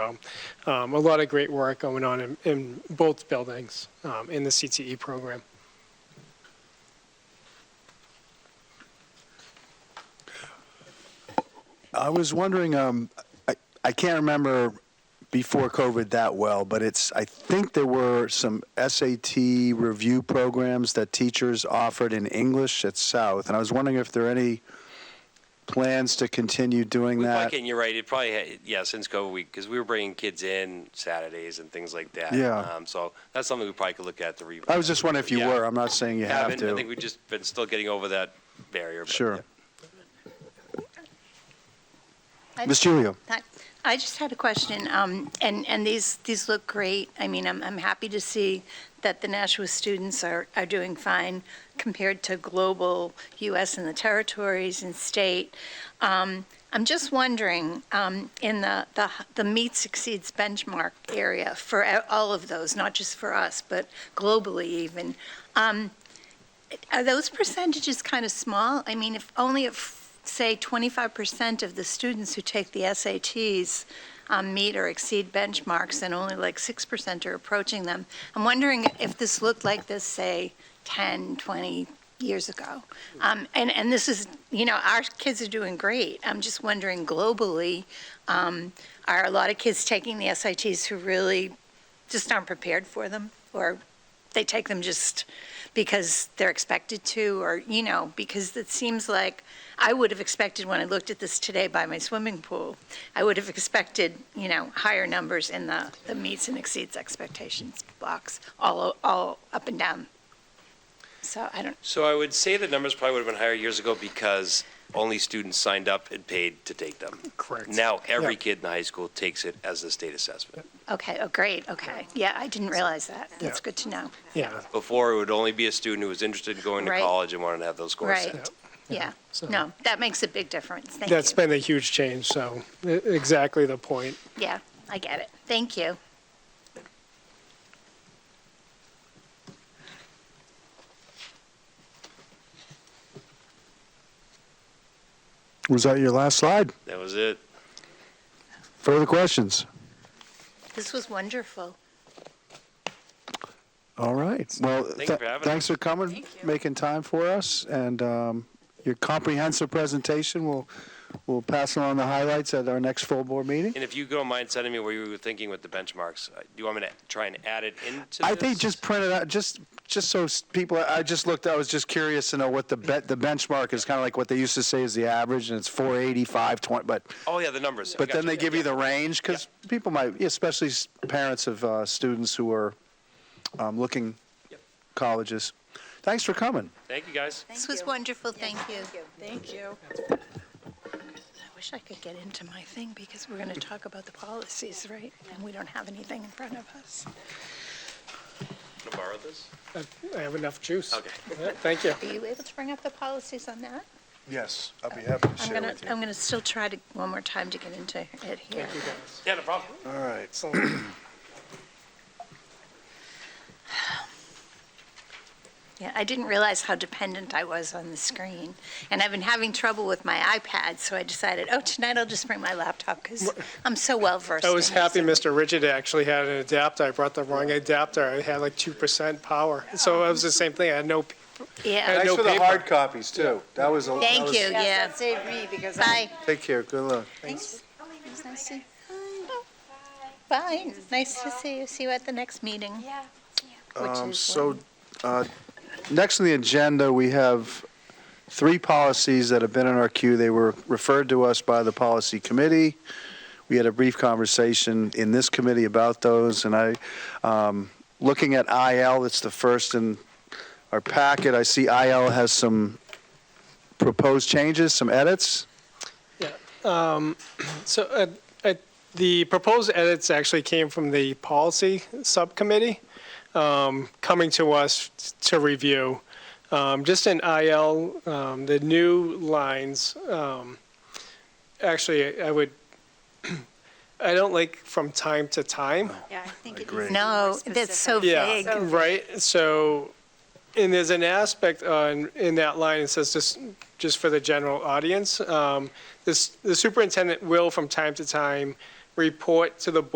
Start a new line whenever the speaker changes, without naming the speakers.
Um, A lot of great work going on in, in both buildings, um, in the CTE program.
I was wondering, um, I, I can't remember before COVID that well, but it's, I think there were some SAT review programs that teachers offered in English at South, and I was wondering if there are any plans to continue doing
We probably
that?
can, you're right. It probably had, yeah since COVID week because we were bringing kids in Saturdays and things like that.
Yeah.
Um, so that's something we probably could look at the revisit.
I was just wondering if you
Yeah.
were, I'm not saying you have
Haven't. I think
to.
we've just been still getting over that barrier. but-
Sure.
I-
Ms. Julio?
I- I just had a question, um, and, and these, these look great. I mean, I'm, I'm happy to see that the Nashua students are, are doing fine compared to global US and the territories and state. Um, I'm just wondering, um, in the, the, the meets exceeds benchmark area for a- all of those, not just for us, but globally even, um, are those percentages kind of small? I mean, if only if, say, 25% of the students who take the SATs um, meet or exceed benchmarks and only like 6% are approaching them, I'm wondering if this looked like this, say, 10, 20 years ago. Um, and, and this is, you know, our kids are doing great. I'm just wondering globally, um, are a lot of kids taking the SATs who really just aren't prepared for them? Or they take them just because they're expected to, or, you know, because it seems like I would have expected when I looked at this today by my swimming pool, I would have expected, you know, higher numbers in the, the meets and exceeds expectations box, all, o- all up and down. So I don't,
So I would say the numbers probably would have been higher years ago because only students signed up and paid to take them.
Correct.
Now every
Yeah.
kid in high school takes it as a state assessment.
okay, oh, great, okay. Yeah, I didn't realize that. That's
Yeah.
good to know.
Yeah,
Before it would only be a student who was interested in going to
Right.
college and wanted to have those scores
Right.
set.
Yeah,
so-
no, that makes a big difference. Thank you.
that's been a huge change, so e- exactly the point.
Yeah, I get it. Thank you.
Was that your last slide?
That was it.
Further questions?
This was wonderful.
All right. Well,
Thank you
th-
for having
thanks for coming, making time for us, and um, your comprehensive presentation. We'll, we'll pass along the highlights at our next full board meeting.
And if you don't mind sending me where you were thinking with the benchmarks, uh, do you want me to try and add it into?
I think
this?
just print it out, just, just so s- people, I just looked, I was just curious to know what the bet, the benchmark is, kind of like what they used to say is the average, and it's 485, 20, but,
Oh yeah, the numbers.
but then
Gotcha.
they give you the range, because people might, especially s- parents of uh, students who are um, looking
Yep.
colleges. Thanks for coming.
Thank you, guys.
This was wonderful, thank you.
Thank you.
I wish I could get into my thing because we're going to talk about the policies, right? And we don't have anything in front of us.
Can I borrow this?
I have enough juice.
Okay.
Yeah, Thank you.
Are you able to bring up the policies on that?
Yes, I'll be happy to
I'm going to, I'm going to still try to, one more time to get into it here.
Yeah, no problem.
All right.
Yeah, I didn't realize how dependent I was on the screen. And I've been having trouble with my iPad, so I decided, oh, tonight I'll just bring my laptop because I'm so well versed.
I was
in this.
happy Mr. Rigid actually had an adapter. I brought the wrong adapter. I had like 2% power. So it was the same thing. I had no,
Yeah,
Thank-
Thanks
no
for the
paper.
hard copies, too. That was a. that
thank
was-
you, yeah.
Save me because I.
Bye.
Take care, good luck.
Thanks. It was nice to- Bye, nice to see you, see you at the next meeting.
Yeah.
which
Um,
is
So,
when-
uh, next on the agenda, we have three policies that have been in our queue. They were referred to us by the policy committee. We had a brief conversation in this committee about those, and I, um, looking at IL, it's the first in our packet. I see IL has some proposed changes, some edits.
so uh, uh, the proposed edits actually came from the policy subcommittee, um, coming to us to review. Um, Just in IL, um, the new lines, um, actually, I would, I don't like from time to time.
Yeah, I think it
Agree.
needs to be more
No, that's so
specific.
Yeah,
vague.
So-
right, so, and there's an aspect on, in that line, it says, just, just for the general audience, um, this, the superintendent will from time to time report to the